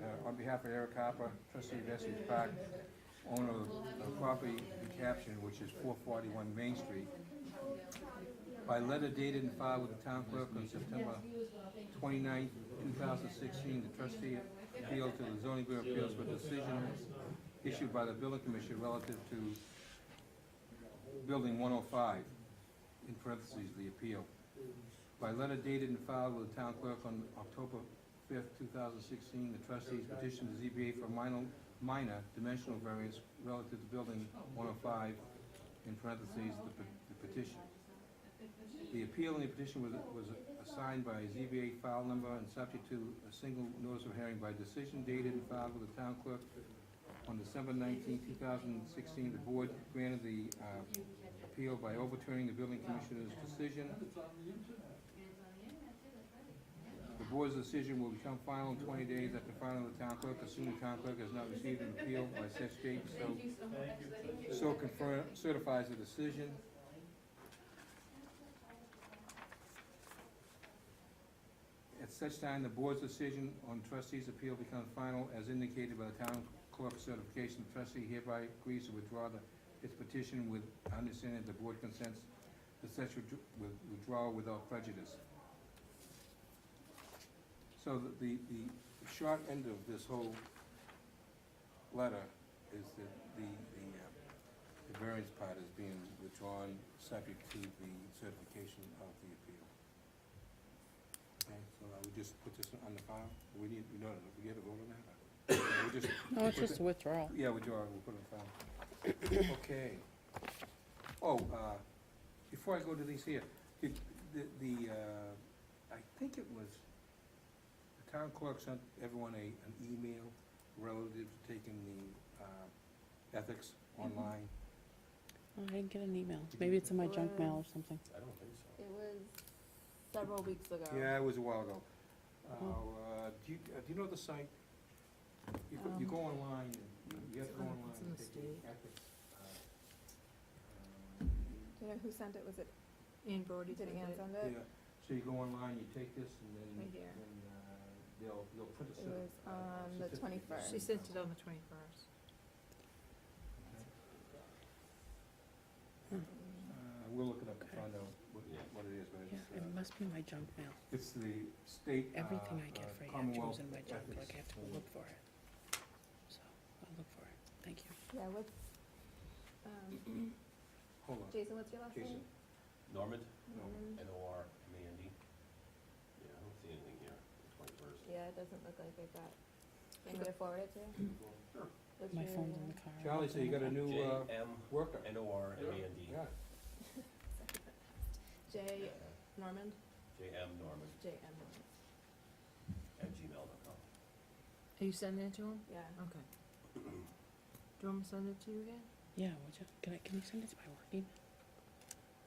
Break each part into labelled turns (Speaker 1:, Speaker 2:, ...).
Speaker 1: Uh, on behalf of Eric Harper, trustee of Essex Park, owner of the property in caption, which is four forty-one Main Street. By letter dated and filed with the town clerk on September 29, thousand sixteen, the trustee appealed to the zoning board of appeals for decision issued by the building commission relative to building one oh five, in parentheses, the appeal. By letter dated and filed with the town clerk on October fifth, two thousand sixteen, the trustees petitioned the ZBA for minor, minor dimensional variance relative to building one oh five, in parentheses, the pe- the petition. The appeal and the petition was, was assigned by ZBA file number and subject to a single notice of hearing by decision dated and filed with the town clerk on December 19, thousand sixteen. The board granted the, uh, appeal by overturning the building commissioner's decision. The board's decision will become final in twenty days after filing with the town clerk, assuming the town clerk has not received an appeal by such date, so so confirm, certifies the decision. At such time, the board's decision on trustee's appeal becomes final as indicated by the town clerk's certification. The Trustee hereby agrees to withdraw the, its petition with understanding that the board consents to such withdraw- with- withdrawal without prejudice. So the- the, the short end of this whole letter is that the, the, uh, the variance part is being withdrawn, subject to the certification of the appeal. Okay, so I would just put this on the file, we need, we don't, we get a vote on that? We just-
Speaker 2: No, it's just a withdrawal.
Speaker 1: Yeah, withdraw, we'll put it on file. Okay. Oh, uh, before I go to these here, the, the- the, uh, I think it was, the town clerk sent everyone a, an email relative to taking the, uh, ethics
Speaker 3: Mm-hmm.
Speaker 1: online.
Speaker 2: Oh, I didn't get an email. Maybe it's in my junk mail or something.
Speaker 4: I don't think so.
Speaker 5: It was several weeks ago.
Speaker 1: Yeah, it was a while ago.
Speaker 3: Mm-hmm.
Speaker 1: Uh, do you, uh, do you know the site? You go, you go online, and you have to go
Speaker 3: Um,
Speaker 1: online.
Speaker 3: it's
Speaker 1: and
Speaker 3: in the
Speaker 1: take
Speaker 3: state.
Speaker 1: ethics, uh, um,
Speaker 5: Do you know who sent it? Was it,
Speaker 3: Ian Brody sent
Speaker 5: did Ann
Speaker 3: it.
Speaker 5: send
Speaker 1: Yeah,
Speaker 5: it?
Speaker 1: so you go online, you take this, and then,
Speaker 5: Right here.
Speaker 1: then, uh, they'll, they'll print a
Speaker 5: It
Speaker 1: certi-
Speaker 5: was
Speaker 1: uh,
Speaker 5: on the
Speaker 1: certificate.
Speaker 5: 21st.
Speaker 3: She sent it on the twenty-first.
Speaker 1: Uh, we'll look it up and
Speaker 2: Okay.
Speaker 1: find out what,
Speaker 4: Yeah.
Speaker 1: what it is, but
Speaker 2: Yeah,
Speaker 1: it's,
Speaker 2: it
Speaker 1: uh,
Speaker 2: must be my junk mail.
Speaker 1: it's the state, uh,
Speaker 2: Everything I
Speaker 1: uh,
Speaker 2: get for Andrew
Speaker 1: Commonwealth
Speaker 2: is in my junk,
Speaker 1: ethics,
Speaker 2: like I have to go
Speaker 1: uh,
Speaker 2: look for it. So, I'll look for it. Thank you.
Speaker 5: Yeah, what's, um,
Speaker 1: Hold on,
Speaker 5: Jason, what's your last name?
Speaker 1: Jason,
Speaker 4: Normand,
Speaker 1: no.
Speaker 5: Mm,
Speaker 4: N O R M A N D. Yeah, I don't see anything here, the twenty-first.
Speaker 5: Yeah, it doesn't look like I got, I'm gonna forward it to you. What's
Speaker 2: My
Speaker 5: your,
Speaker 2: phone's
Speaker 5: uh,
Speaker 2: in the car. I'll
Speaker 1: Charlie,
Speaker 2: look
Speaker 1: so
Speaker 2: in
Speaker 1: you
Speaker 2: the
Speaker 1: got a
Speaker 2: car.
Speaker 1: new,
Speaker 4: J
Speaker 1: uh,
Speaker 4: M
Speaker 1: worker,
Speaker 4: N O R M A N D.
Speaker 1: yeah,
Speaker 5: J Norman?
Speaker 4: J M Normand
Speaker 5: J M Norman,
Speaker 4: at gmail dot com.
Speaker 3: Are you sending it to him?
Speaker 5: yeah.
Speaker 3: Okay. Do you want me to send it to you again?
Speaker 2: Yeah, would you, can I, can you send it to my work email,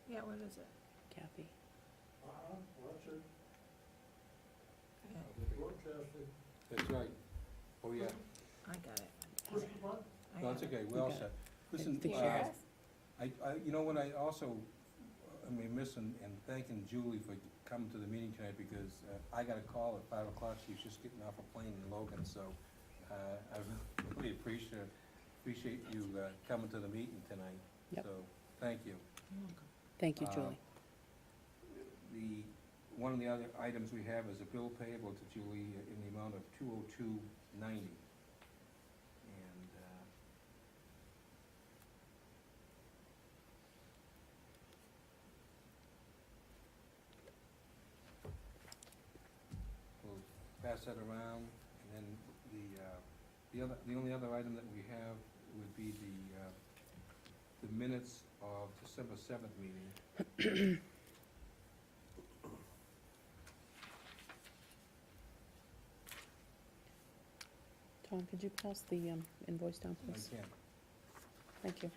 Speaker 3: Yeah, what is it?
Speaker 2: Kathy?
Speaker 1: that's right, oh, yeah,
Speaker 3: I got it.
Speaker 2: All right.
Speaker 3: I
Speaker 1: no, it's
Speaker 3: got it.
Speaker 1: okay, we're all
Speaker 2: got
Speaker 1: set.
Speaker 2: It's
Speaker 1: Listen,
Speaker 2: the
Speaker 1: uh,
Speaker 2: sheriff.
Speaker 1: I, I, you know what, I also, I mean, missing and thanking Julie for coming to the meeting tonight, because uh, I got a call at five o'clock, she was just getting off a plane in Logan, so, uh, I really appreciate, appreciate you, uh, coming to the meeting tonight.
Speaker 2: Yep.
Speaker 1: So, thank you.
Speaker 3: You're welcome.
Speaker 2: Thank you,
Speaker 1: uh,
Speaker 2: Julie.
Speaker 1: The, one of the other items we have is a bill payable to Julie in the amount of two oh two ninety. And, uh, we'll pass that around, and then the, uh, the other, the only other item that we have would be the, uh, the minutes of December seventh meeting.
Speaker 2: Tom, could you pass the um, invoice down,
Speaker 1: I
Speaker 2: please?
Speaker 1: can.
Speaker 2: Thank you.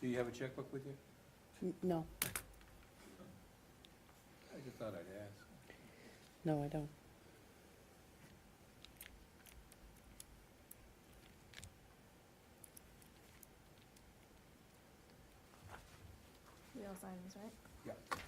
Speaker 1: Do you have a checkbook with you?
Speaker 2: N- No,
Speaker 1: I just thought I'd ask.
Speaker 2: no, I don't.
Speaker 5: We all signed this, right?
Speaker 1: Yeah.